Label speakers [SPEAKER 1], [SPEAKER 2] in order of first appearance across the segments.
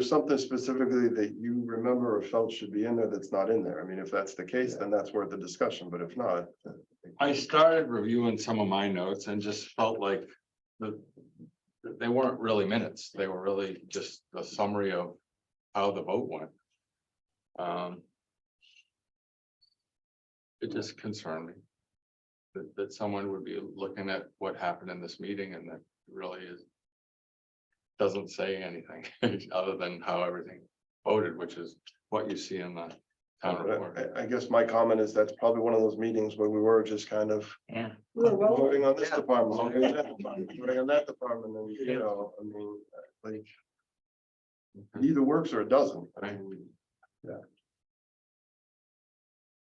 [SPEAKER 1] there's something specifically that you remember or felt should be in there that's not in there. I mean, if that's the case, then that's worth the discussion, but if not.
[SPEAKER 2] I started reviewing some of my notes and just felt like the. They weren't really minutes, they were really just a summary of how the vote went. Um. It just concerned me. That, that someone would be looking at what happened in this meeting and that really is. Doesn't say anything other than how everything voted, which is what you see in the town report.
[SPEAKER 1] I, I guess my comment is that's probably one of those meetings where we were just kind of voting on this
[SPEAKER 2] Yeah.
[SPEAKER 1] department, voting on that department, voting on that department, and you know, I mean, like. Either works or it doesn't. I mean,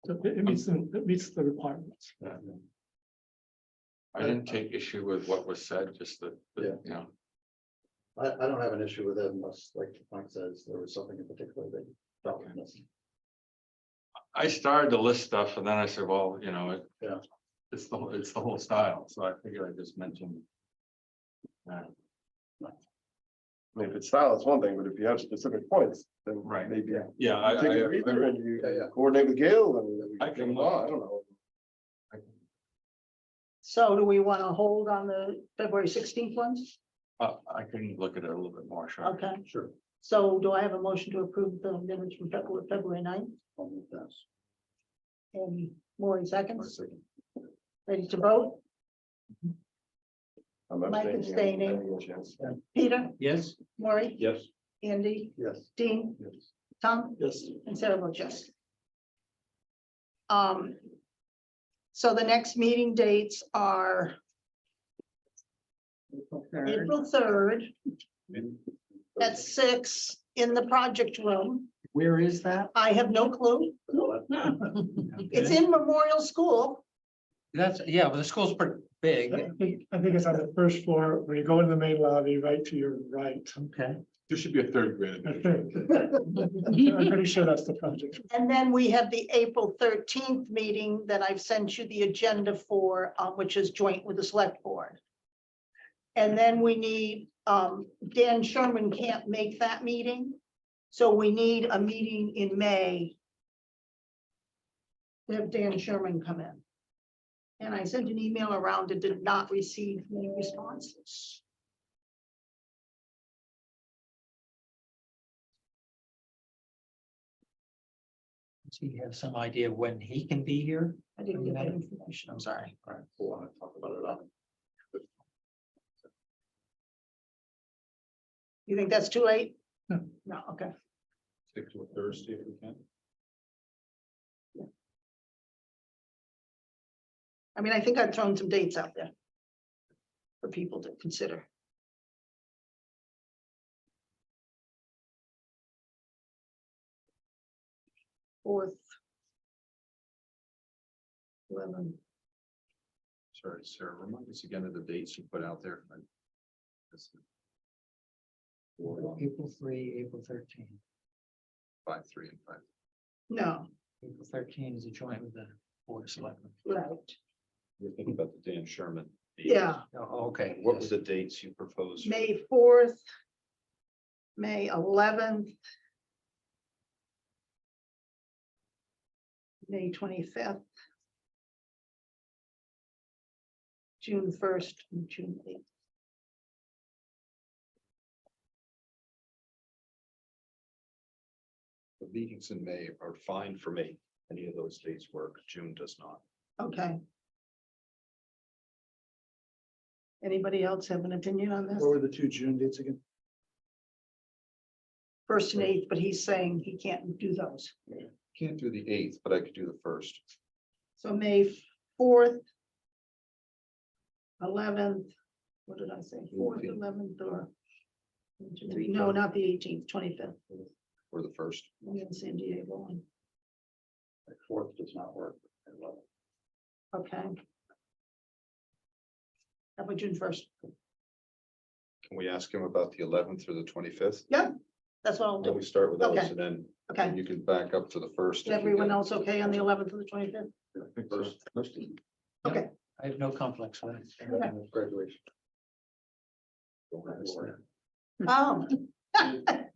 [SPEAKER 3] So It it meets, the- it meets the requirements.
[SPEAKER 2] I didn't take issue with what was said, just that,
[SPEAKER 4] Yeah.
[SPEAKER 2] that, you know,
[SPEAKER 4] I, I don't have an issue with it unless, like Frank says, there was something in particular that you felt was missing.
[SPEAKER 2] I started to list stuff and then I said, well, you know, it.
[SPEAKER 4] Yeah.
[SPEAKER 2] It's the, whole- it's the whole style, so I figured I just mentioned. uh,
[SPEAKER 1] I mean, if it's style, it's one thing, but if you have specific points, then
[SPEAKER 2] Right.
[SPEAKER 1] maybe. you
[SPEAKER 2] Yeah, I,
[SPEAKER 1] take a
[SPEAKER 2] I-
[SPEAKER 1] breather and
[SPEAKER 4] Yeah,
[SPEAKER 1] you
[SPEAKER 4] yeah.
[SPEAKER 1] Coordinate with Gail and. we
[SPEAKER 2] I can
[SPEAKER 1] move
[SPEAKER 2] look.
[SPEAKER 1] on, I don't know.
[SPEAKER 5] So do we want to hold on the February sixteenth ones?
[SPEAKER 2] I, Uh, I can look at it a little bit more, sure.
[SPEAKER 5] Okay,
[SPEAKER 4] Sure.
[SPEAKER 5] so do I have a motion to approve the minutes from February, February 9th?
[SPEAKER 4] I'll move this.
[SPEAKER 5] And Maureen
[SPEAKER 4] One
[SPEAKER 5] seconds,
[SPEAKER 4] second.
[SPEAKER 5] ready to vote?
[SPEAKER 1] I'm
[SPEAKER 5] Mike
[SPEAKER 1] abstaining. I'm
[SPEAKER 5] abstaining.
[SPEAKER 1] giving you a chance.
[SPEAKER 5] Peter,
[SPEAKER 3] Yes.
[SPEAKER 5] Maury,
[SPEAKER 4] Yes.
[SPEAKER 5] Andy,
[SPEAKER 4] Yes.
[SPEAKER 5] Dean,
[SPEAKER 4] Yes.
[SPEAKER 5] Tom,
[SPEAKER 3] Yes.
[SPEAKER 5] and Sarah votes yes. Um, so the next meeting dates are April third at six in the project room.
[SPEAKER 3] Where is that?
[SPEAKER 5] I have no clue. It's in Memorial School.
[SPEAKER 6] That's, yeah, but the school's pretty big.
[SPEAKER 3] I think I think it's on the first floor, when you go into the main lobby, right to your right.
[SPEAKER 6] Okay.
[SPEAKER 2] There should be a third
[SPEAKER 3] I
[SPEAKER 2] grade.
[SPEAKER 3] think. I'm pretty sure that's the project.
[SPEAKER 5] And then we have the April thirteenth meeting that I've sent you the agenda for, uh, which is joint with the select board. And then we need, um, Dan Sherman can't make that meeting, so we need a meeting in May. to Have Dan Sherman come in. And I sent an email around and did not receive many responses.
[SPEAKER 6] Does he have some idea when he can be here?
[SPEAKER 5] I didn't get that information, I'm sorry.
[SPEAKER 4] All right, we'll want to talk about it on.
[SPEAKER 5] You think that's too late?
[SPEAKER 3] No.
[SPEAKER 5] No, okay.
[SPEAKER 2] Stick to a Thursday if we can.
[SPEAKER 5] I mean, I think I've thrown some dates out there. For people to consider. Fourth. Eleven,
[SPEAKER 2] Sorry, Sarah, remind us again of the dates you put out there.
[SPEAKER 6] April three, April thirteen.
[SPEAKER 2] Five, three and five.
[SPEAKER 5] no,
[SPEAKER 6] April thirteen is a joint with the board of selectmen.
[SPEAKER 5] right,
[SPEAKER 2] You're thinking about the Dan Sherman.
[SPEAKER 5] yeah,
[SPEAKER 6] Oh, okay.
[SPEAKER 2] What was the dates you proposed?
[SPEAKER 5] May fourth. May eleventh. May twenty-fifth. June first and June eighth.
[SPEAKER 4] The meetings in May are fine for me. Any of those dates work. June does not.
[SPEAKER 5] Okay. Anybody else have an opinion on this?
[SPEAKER 3] were the two June dates again?
[SPEAKER 5] First and eighth, but he's saying he can't do those.
[SPEAKER 4] Can't do the eighth, but I could do the first.
[SPEAKER 5] So May fourth. Eleventh, what did I say? Fourth,
[SPEAKER 4] Eighteenth.
[SPEAKER 5] eleventh, or? one, two, three. No, not the eighteenth, twenty-fifth,
[SPEAKER 4] Or the first.
[SPEAKER 5] in San Diego one.
[SPEAKER 4] The Fourth does not work. I love it.
[SPEAKER 5] Okay. How about June first?
[SPEAKER 7] Can we ask him about the eleventh or the twenty-fifth?
[SPEAKER 5] That's what I'll
[SPEAKER 7] Then
[SPEAKER 5] do.
[SPEAKER 7] we start with those
[SPEAKER 5] Okay.
[SPEAKER 7] and then
[SPEAKER 5] Okay.
[SPEAKER 7] you can back up to the first.
[SPEAKER 5] Is everyone else okay on the eleventh and the twenty-fifth?
[SPEAKER 4] First, first
[SPEAKER 6] I have no conflicts with it.
[SPEAKER 5] Okay.
[SPEAKER 4] graduation.
[SPEAKER 5] Oh.